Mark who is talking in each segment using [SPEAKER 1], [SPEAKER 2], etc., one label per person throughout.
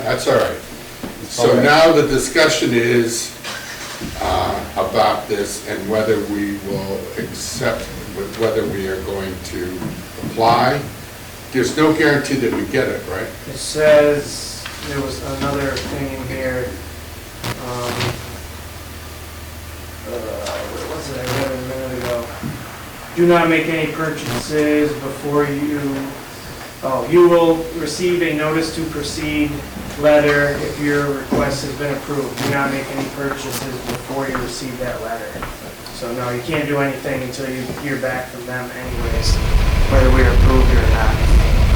[SPEAKER 1] That's all right. So
[SPEAKER 2] Okay.
[SPEAKER 1] now the discussion is uh, about this and whether we will accept, whether we are going to apply. There's no guarantee that we get it, right?
[SPEAKER 3] It says, there was another thing in here, um, uh, what was it, I read it a minute ago. Do not make any purchases before you, oh, you will receive a notice to proceed letter if your request has been approved. Do not make any purchases before you receive that letter. So no, you can't do anything until you hear back from them anyways, whether we are approved or not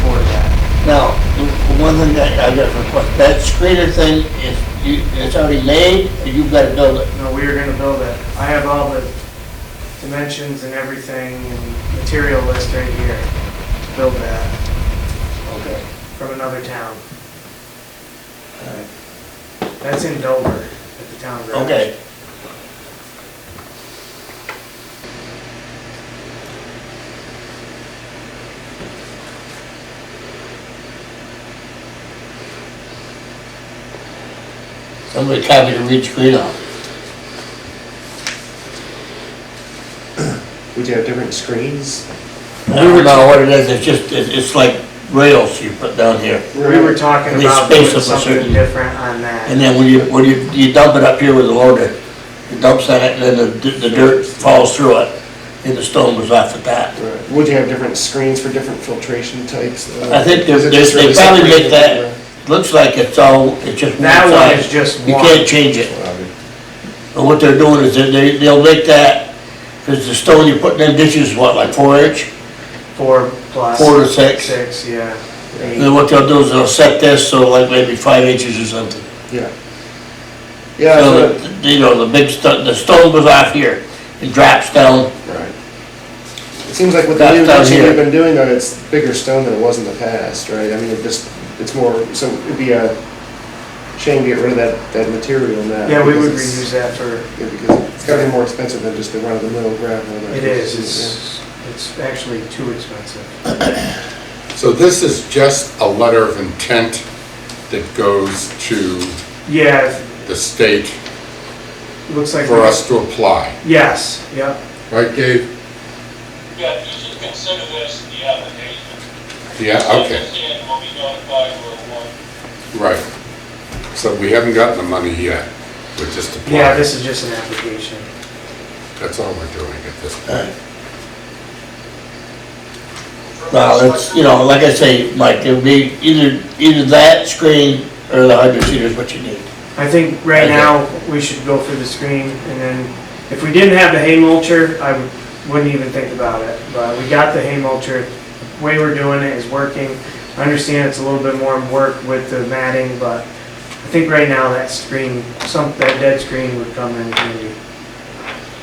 [SPEAKER 3] for that.
[SPEAKER 2] Now, the one thing that I got a question, that screener thing is, you, it's already made, and you've got to build it.
[SPEAKER 3] No, we are gonna build it. I have all the dimensions and everything and material list right here to build that
[SPEAKER 2] Okay.
[SPEAKER 3] from another town. Uh, That's in Dover at the town garage.
[SPEAKER 2] Okay. Somebody copied a reed screen off.
[SPEAKER 4] Would you have different screens?
[SPEAKER 2] I don't know what it is, it's just, it- it's like rails you put down here.
[SPEAKER 3] We were talking
[SPEAKER 2] They
[SPEAKER 3] about
[SPEAKER 2] space
[SPEAKER 3] doing
[SPEAKER 2] up a
[SPEAKER 3] something
[SPEAKER 2] certain-
[SPEAKER 3] different on
[SPEAKER 2] And
[SPEAKER 3] that.
[SPEAKER 2] then when you, when you, you dump it up here with the loader, you dump on it, and then the, the dirt falls through it, and the stone was off at that.
[SPEAKER 4] Would you have different screens for different filtration types? Uh,
[SPEAKER 2] I think there's-
[SPEAKER 4] is it just
[SPEAKER 2] they
[SPEAKER 4] really
[SPEAKER 2] probably make
[SPEAKER 4] separated?
[SPEAKER 2] that- Looks like it's all, it's just one
[SPEAKER 3] That one is
[SPEAKER 2] side.
[SPEAKER 3] just
[SPEAKER 2] You
[SPEAKER 3] one.
[SPEAKER 2] can't change it. But what they're doing is that they, they'll make that, because the stone you put in them ditches is what, like four inch?
[SPEAKER 3] Four plus.
[SPEAKER 2] Four to six.
[SPEAKER 3] Six, yeah.
[SPEAKER 2] And then what they'll do is they'll set this so like maybe five inches or something.
[SPEAKER 4] Yeah.
[SPEAKER 2] So,
[SPEAKER 4] Yeah, so,
[SPEAKER 2] that, you know, the big stone, the stone goes off here, it drops down,
[SPEAKER 4] right. It seems like with the
[SPEAKER 2] That's
[SPEAKER 4] new
[SPEAKER 2] down
[SPEAKER 4] ditching
[SPEAKER 2] here.
[SPEAKER 4] they've been doing, though, it's bigger stone than it was in the past, right? I mean, it just, it's more, so it'd be a shame to get rid of that, that material now.
[SPEAKER 3] Yeah, we
[SPEAKER 4] because
[SPEAKER 3] would
[SPEAKER 4] it's-
[SPEAKER 3] reuse that for,
[SPEAKER 4] Yeah, because it's gotta be more expensive than just the run-of-the-mill gravel.
[SPEAKER 3] it is, it's, it's actually too expensive.
[SPEAKER 1] So this is just a letter of intent that goes to
[SPEAKER 3] Yeah,
[SPEAKER 1] the state
[SPEAKER 3] it looks like.
[SPEAKER 1] for us to apply.
[SPEAKER 3] Yes, yep.
[SPEAKER 1] Right, Gabe?
[SPEAKER 5] Yeah, you should consider this the application.
[SPEAKER 1] Yeah, okay,
[SPEAKER 5] And will be notified where one.
[SPEAKER 1] right. So we haven't gotten the money yet. We're just applying.
[SPEAKER 3] Yeah, this is just an application.
[SPEAKER 1] That's all we're doing at this point.
[SPEAKER 2] Well, it's, you know, like I say, Mike, it'll be either, either that screen or the hundred seater is what you need.
[SPEAKER 3] I think right now, we should go for the screen, and then, if we didn't have the hay mulcher, I would- wouldn't even think about it, but we got the hay mulcher, The way we're doing it is working. I understand it's a little bit more work with the matting, but I think right now, that screen, some, that dead screen would come in handy.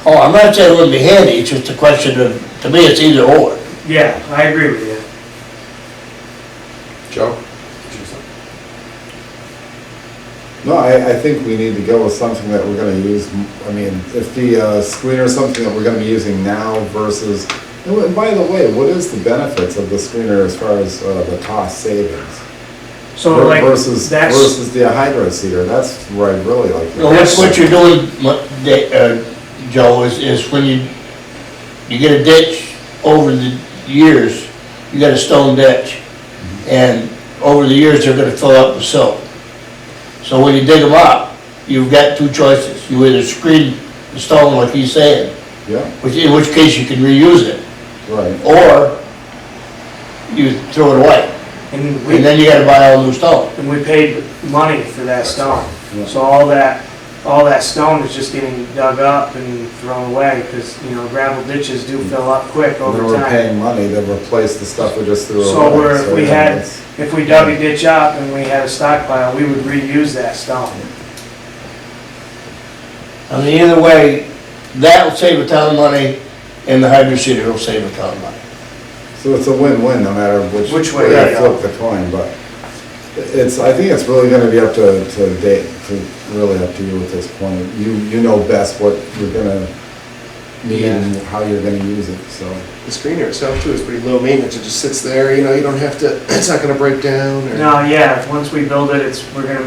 [SPEAKER 2] Oh, I'm not saying it wouldn't be handy, it's just a question of, to me, it's either or.
[SPEAKER 3] Yeah, I agree with you.
[SPEAKER 1] Joe?
[SPEAKER 6] No, I, I think we need to go with something that we're gonna use, m- I mean, if the uh, screener is something that we're gonna be using now versus, and wh- by the way, what is the benefits of the screener as far as uh, the cost savings?
[SPEAKER 3] So Oh, like,
[SPEAKER 6] Versus,
[SPEAKER 3] that's,
[SPEAKER 6] versus the hydro seeder, that's where I really like.
[SPEAKER 2] You know, What, what you're doing, what, da- uh, Joe, is, is when you, you get a ditch over the years, you got a stone ditch. And over the years, they're gonna fill up with silt. So when you dig them up, you've got two choices. You either screen the stone like he's saying,
[SPEAKER 6] Yeah,
[SPEAKER 2] which, in which case you can reuse it.
[SPEAKER 6] right,
[SPEAKER 2] or you throw it away,
[SPEAKER 3] and we.
[SPEAKER 2] and then you gotta buy all new stone.
[SPEAKER 3] And we paid money for that stone. So all that, all that stone is just getting dug up and thrown away, because, you know, gravel ditches do fill up quick
[SPEAKER 6] and then
[SPEAKER 3] over
[SPEAKER 6] we're
[SPEAKER 3] time.
[SPEAKER 6] paying money to replace the stuff we just threw away.
[SPEAKER 3] So we're, if we
[SPEAKER 6] yeah,
[SPEAKER 3] had,
[SPEAKER 6] it's-
[SPEAKER 3] if we dug a ditch up and we had a stockpile, we would reuse that stone.
[SPEAKER 2] I mean, either way, that'll save a ton of money, and the hydro seeder will save a ton of money.
[SPEAKER 6] So it's a win-win, no matter which.
[SPEAKER 3] Which way
[SPEAKER 6] I
[SPEAKER 3] you go.
[SPEAKER 6] Flip the coin, but it's, I think it's really gonna be up to, to date, to, really up to you at this point. You, you know best what you're gonna need and how you're gonna use it, so.
[SPEAKER 4] The screener itself too is pretty low maintenance, it just sits there, you know, you don't have to, it's not gonna break down or.
[SPEAKER 3] Now, yeah, once we build it, it's, we're gonna